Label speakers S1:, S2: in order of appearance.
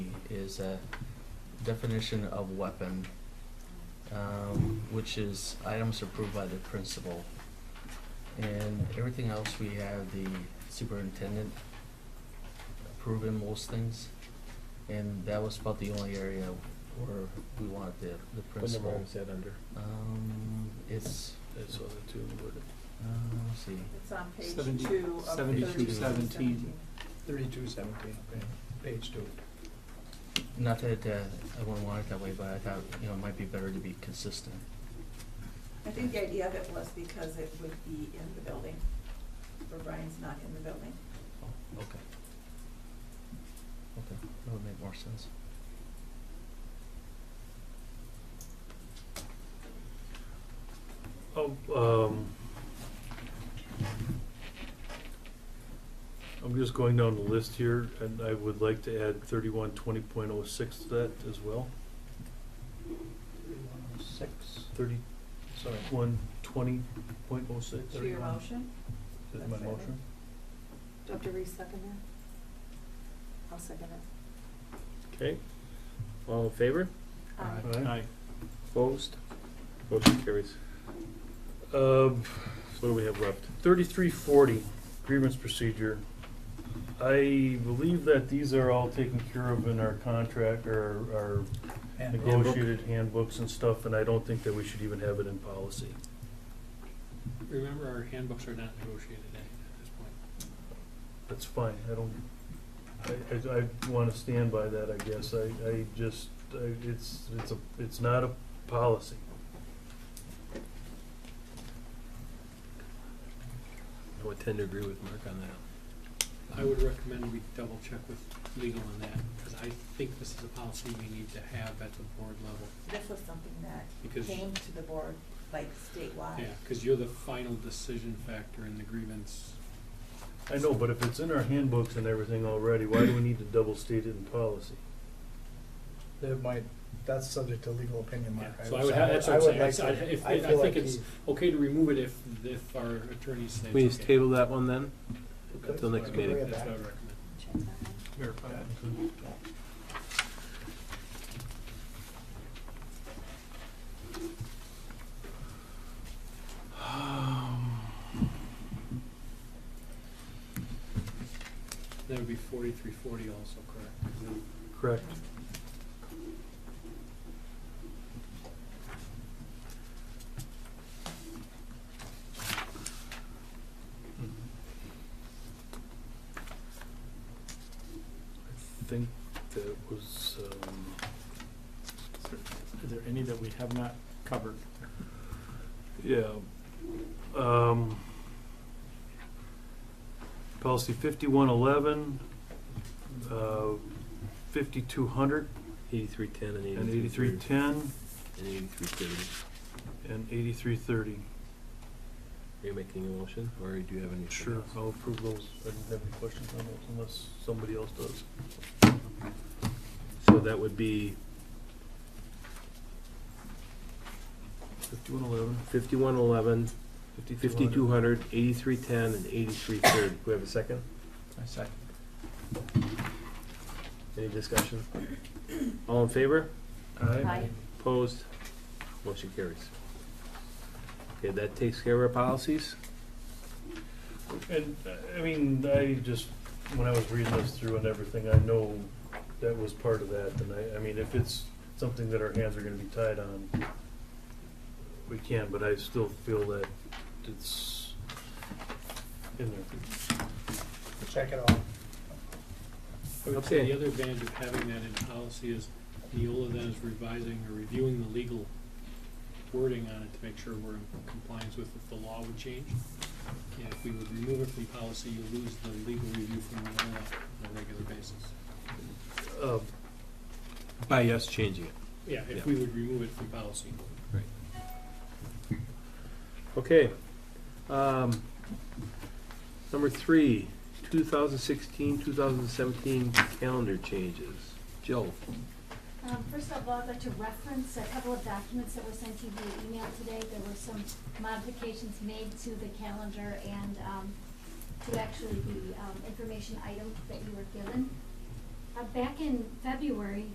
S1: is a definition of weapon, um, which is items approved by the principal. And everything else, we have the superintendent approving most things. And that was about the only area where we wanted the, the
S2: What number
S1: principal.
S2: is that under?
S1: Um, it's,
S2: That's all the two worded.
S1: uh, let's see,
S3: It's on page
S4: Seventy-
S3: two of
S4: seventy-two
S3: thirty-two
S4: seventeen.
S3: seventeen.
S4: Thirty-two seventeen, page two.
S1: not that, uh, I wouldn't want it that way, but I thought, you know, it might be better to be consistent.
S3: I think the idea of it was because it would be in the building, where Brian's not in the building.
S1: Oh, okay. Okay, that would make more sense.
S2: Oh, um. I'm just going down the list here, and I would like to add thirty-one twenty point oh six to that as well.
S4: Thirty-one oh six,
S2: Thirty-one
S4: sorry.
S2: twenty point oh six
S3: To your
S4: Thirty-one.
S3: motion,
S2: is my motion.
S5: Dr. Reese, second that? I'll second it.
S6: Okay, all in favor?
S3: Um,
S5: Aye.
S2: Aye.
S6: Opposed? Motion carries.
S2: Um,
S6: What do we have left?
S2: thirty-three forty, grievance procedure. I believe that these are all taken care of in our contract or our
S4: And
S2: negotiated handbooks and stuff, and I don't think that we should even have it in policy.
S7: Remember, our handbooks are not negotiated at this point.
S2: That's fine, I don't, I, I, I wanna stand by that, I guess, I, I just, I, it's, it's a, it's not a policy.
S6: I would tend to agree with Mark on that.
S7: I would recommend we double check with legal on that, because I think this is a policy we need to have at the board level,
S3: this was something that
S7: because,
S3: came to the board like statewide.
S7: yeah, because you're the final decision factor in the grievance.
S2: I know, but if it's in our handbooks and everything already, why do we need to double state it in policy?
S4: That might, that's subject to legal opinion, Mark. I
S7: Yeah, So I
S4: would
S7: would,
S4: say-
S7: have- that's
S4: I
S7: what
S4: would
S7: I'm
S4: like
S7: saying, I-
S4: to-
S7: if,
S4: I
S7: if- I
S4: feel
S7: think
S4: like
S7: it's
S4: we-
S7: okay to remove it if, if our attorneys say
S6: We
S7: it's
S6: just
S7: okay.
S6: table that one then? Until next
S4: Okay.
S6: meeting.
S7: That's what I would recommend.
S5: Check that one.
S4: Verify that.
S7: That would be forty-three forty also, correct?
S2: Correct. I think that was, um,
S4: Is there any that we have not covered?
S2: yeah, um, policy fifty-one eleven, uh, fifty-two hundred,
S6: Eighty-three ten and
S2: and
S6: eighty-three
S2: eighty-three
S6: thirty.
S2: ten,
S6: And eighty-three thirty.
S2: and eighty-three thirty.
S6: Are you making a motion, or do you have any?
S2: Sure, I'll approve those. I didn't have any questions on those unless somebody else does.
S6: So that would be
S2: Fifty-one eleven.
S6: fifty-one eleven, fifty-two hundred, eighty-three ten, and eighty-three thirty. Do we have a second?
S4: I second.
S6: Any discussion? All in favor?
S2: Aye.
S5: Aye.
S6: Opposed? Motion carries. Okay, that takes care of our policies?
S2: And, uh, I mean, I just, when I was reading this through and everything, I know that was part of that, and I, I mean, if it's something that our hands are gonna be tied on, we can, but I still feel that it's in there.
S4: Check it off.
S7: I would say
S6: Okay.
S7: the other advantage of having that in policy is Neola then is revising or reviewing the legal wording on it to make sure we're in compliance with if the law would change. And if we would remove it from policy, you lose the legal review from Neola on a regular basis.
S2: Uh,
S6: By us changing it.
S7: Yeah,
S6: Yeah.
S7: if we would remove it from policy.
S6: Okay. Um, Number three, 2016, 2017 calendar changes. Jill?
S8: Um, First of all, I'd like to reference a couple of documents that were sent to you via email today. There were some modifications made to the calendar and um, to actually the um, information item that you were given. Uh, Back in February,